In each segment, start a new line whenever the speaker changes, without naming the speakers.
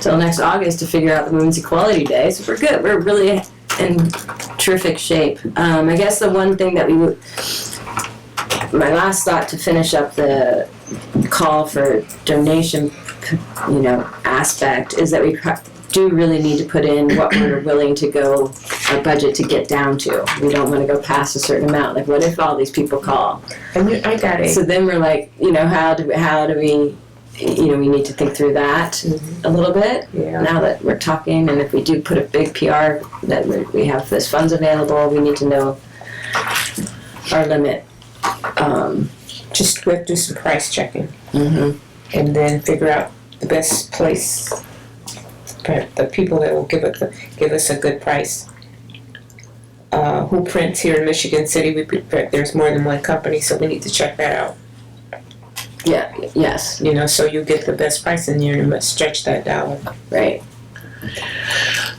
till next August to figure out the Women's Equality Day. So we're good. We're really in terrific shape. Um, I guess the one thing that we would, my last thought to finish up the call for donation, you know, aspect is that we pro- do really need to put in what we're willing to go our budget to get down to. We don't want to go past a certain amount. Like, what if all these people call?
I mean, I got it.
So then we're like, you know, how do how do we, you know, we need to think through that a little bit
Yeah.
now that we're talking. And if we do put a big PR that we- we have this funds available, we need to know our limit. Um,
Just we have to do some price checking
mhm.
and then figure out the best place. for The people that will give it the, give us a good price. Uh, who prints here in Michigan City? We pre- there's more than one company, so we need to check that out.
Yeah. Yes.
You know, so you get the best price and you must stretch that dollar.
Right.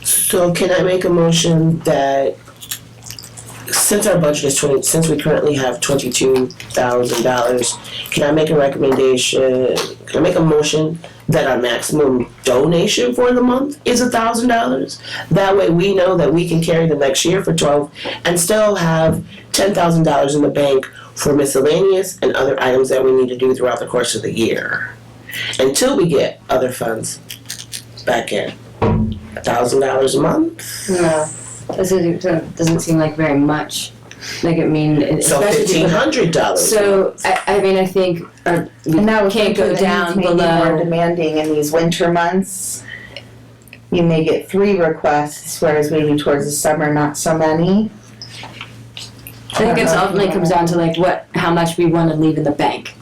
So can I make a motion that since our budget is twenty, since we currently have twenty-two thousand dollars, can I make a recommendation, can I make a motion that our maximum donation for the month is a thousand dollars? That way we know that we can carry the next year for twelve and still have ten thousand dollars in the bank for miscellaneous and other items that we need to do throughout the course of the year. Until we get other funds back in. A thousand dollars a month?
No. Doesn't doesn't seem like very much. Like I mean,
So
especially
fifteen
people-
hundred dollars.
So I, I mean, I think our, we
And that would
can't go
make it
down
maybe More
below.
demanding in these winter months. You may get three requests, whereas maybe towards the summer, not so many.
I think it's ultimately comes down to like what, how much we want to leave in the bank.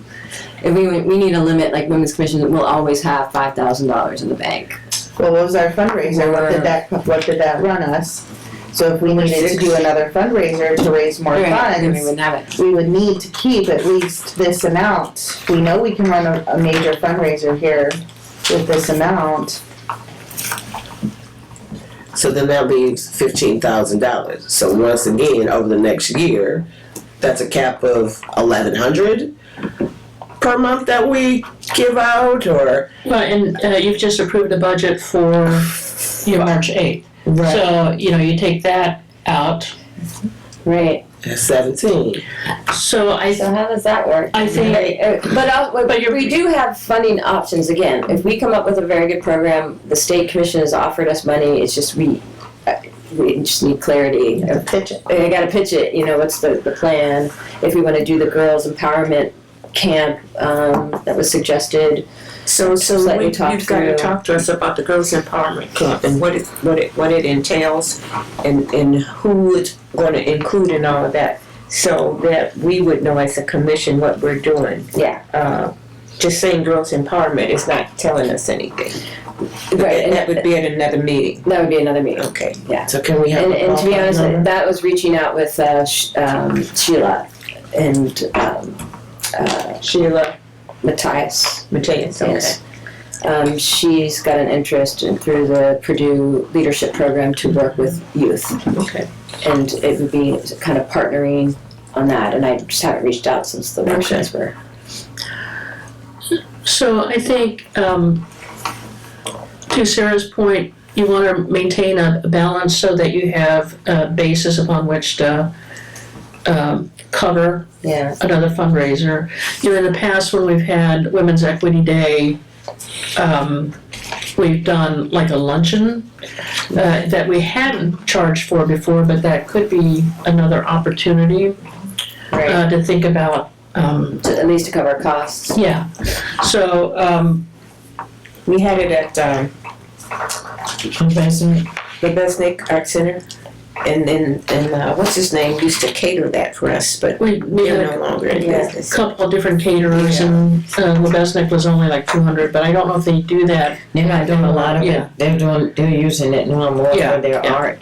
If we we need a limit, like women's commission will always have five thousand dollars in the bank.
Well, what was our fundraiser? What did that, what did that run us? So if we needed to do another fundraiser to raise more
Right, then we
funds,
wouldn't have it.
we would need to keep at least this amount. We know we can run a, a major fundraiser here with this amount.
So then that leaves fifteen thousand dollars. So once again, over the next year, that's a cap of eleven hundred per month that we give out or
Well, and uh, you've just approved the budget for, you know, March eighth. So, you know, you take that out.
Right.
seventeen.
So I,
So how does that work?
I think-
Right, uh, But I'll-
But you're-
we do have funding options again. If we come up with a very good program, the state commission has offered us money, it's just we, uh, we just need clarity of
Pitch it.
I gotta pitch it, you know, what's the, the plan, if we wanna do the girls empowerment camp, um, that was suggested.
So,
Just
so
let
we,
you talk
you've got
through.
to talk to us about the Girls Empowerment Camp and what it, what it, what it entails and, and who it's going to include and all of that. So that we would know as a commission what we're doing.
Yeah.
Uh, just saying Girls Empowerment is not telling us anything.
Right,
And that
and
would be at another meeting.
that would be another meeting.
Okay.
So can we have
And,
a
and to be
ballpark
honest,
number?
that was reaching out with, uh, Sh- um, Sheila and, um, uh,
Sheila
Matthias.
Mateus, okay.
Yes. Um, she's got an interest in, through the Purdue Leadership Program to work with youth.
Okay.
And it would be kind of partnering on that, and I just haven't reached out since the workshops were.
so I think, um, to Sarah's point, you want to maintain a balance so that you have a basis upon which to, um, cover
Yeah.
another fundraiser. You know, in the past, when we've had Women's Equity Day, um, we've done like a luncheon uh, that we hadn't charged for before, but that could be another opportunity
Right,
uh, to think about. Um,
to, at least to cover
Oh,
costs.
yeah, so um,
We had it at, um, the Besnick Art Center. And then, and, uh, what's his name used to cater that for us, but
we we had
they're
a
no longer in
Yeah.
business.
couple of different caterers, and uh, Lebesnick was only like 200, but I don't know if they do that.
They're not doing a lot of
Yeah.
it. They're doing, they're using it no more
Yeah,
for their
yeah.
art.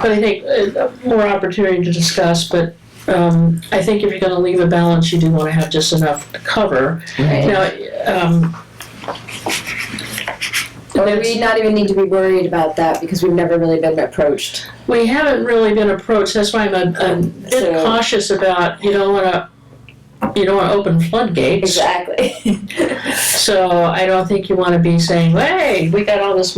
But I think uh, more opportunity to discuss, but um, I think if you're gonna leave a balance, you do wanna have just enough to cover.
Right.
Now, um,
Or we not even need to be worried about that because we've never really been approached.
we haven't really been approached, that's why I'm a, a bit
So-
cautious about, you don't wanna, you don't wanna open floodgates.
Exactly.
So I don't think you wanna be saying, hey, we got all this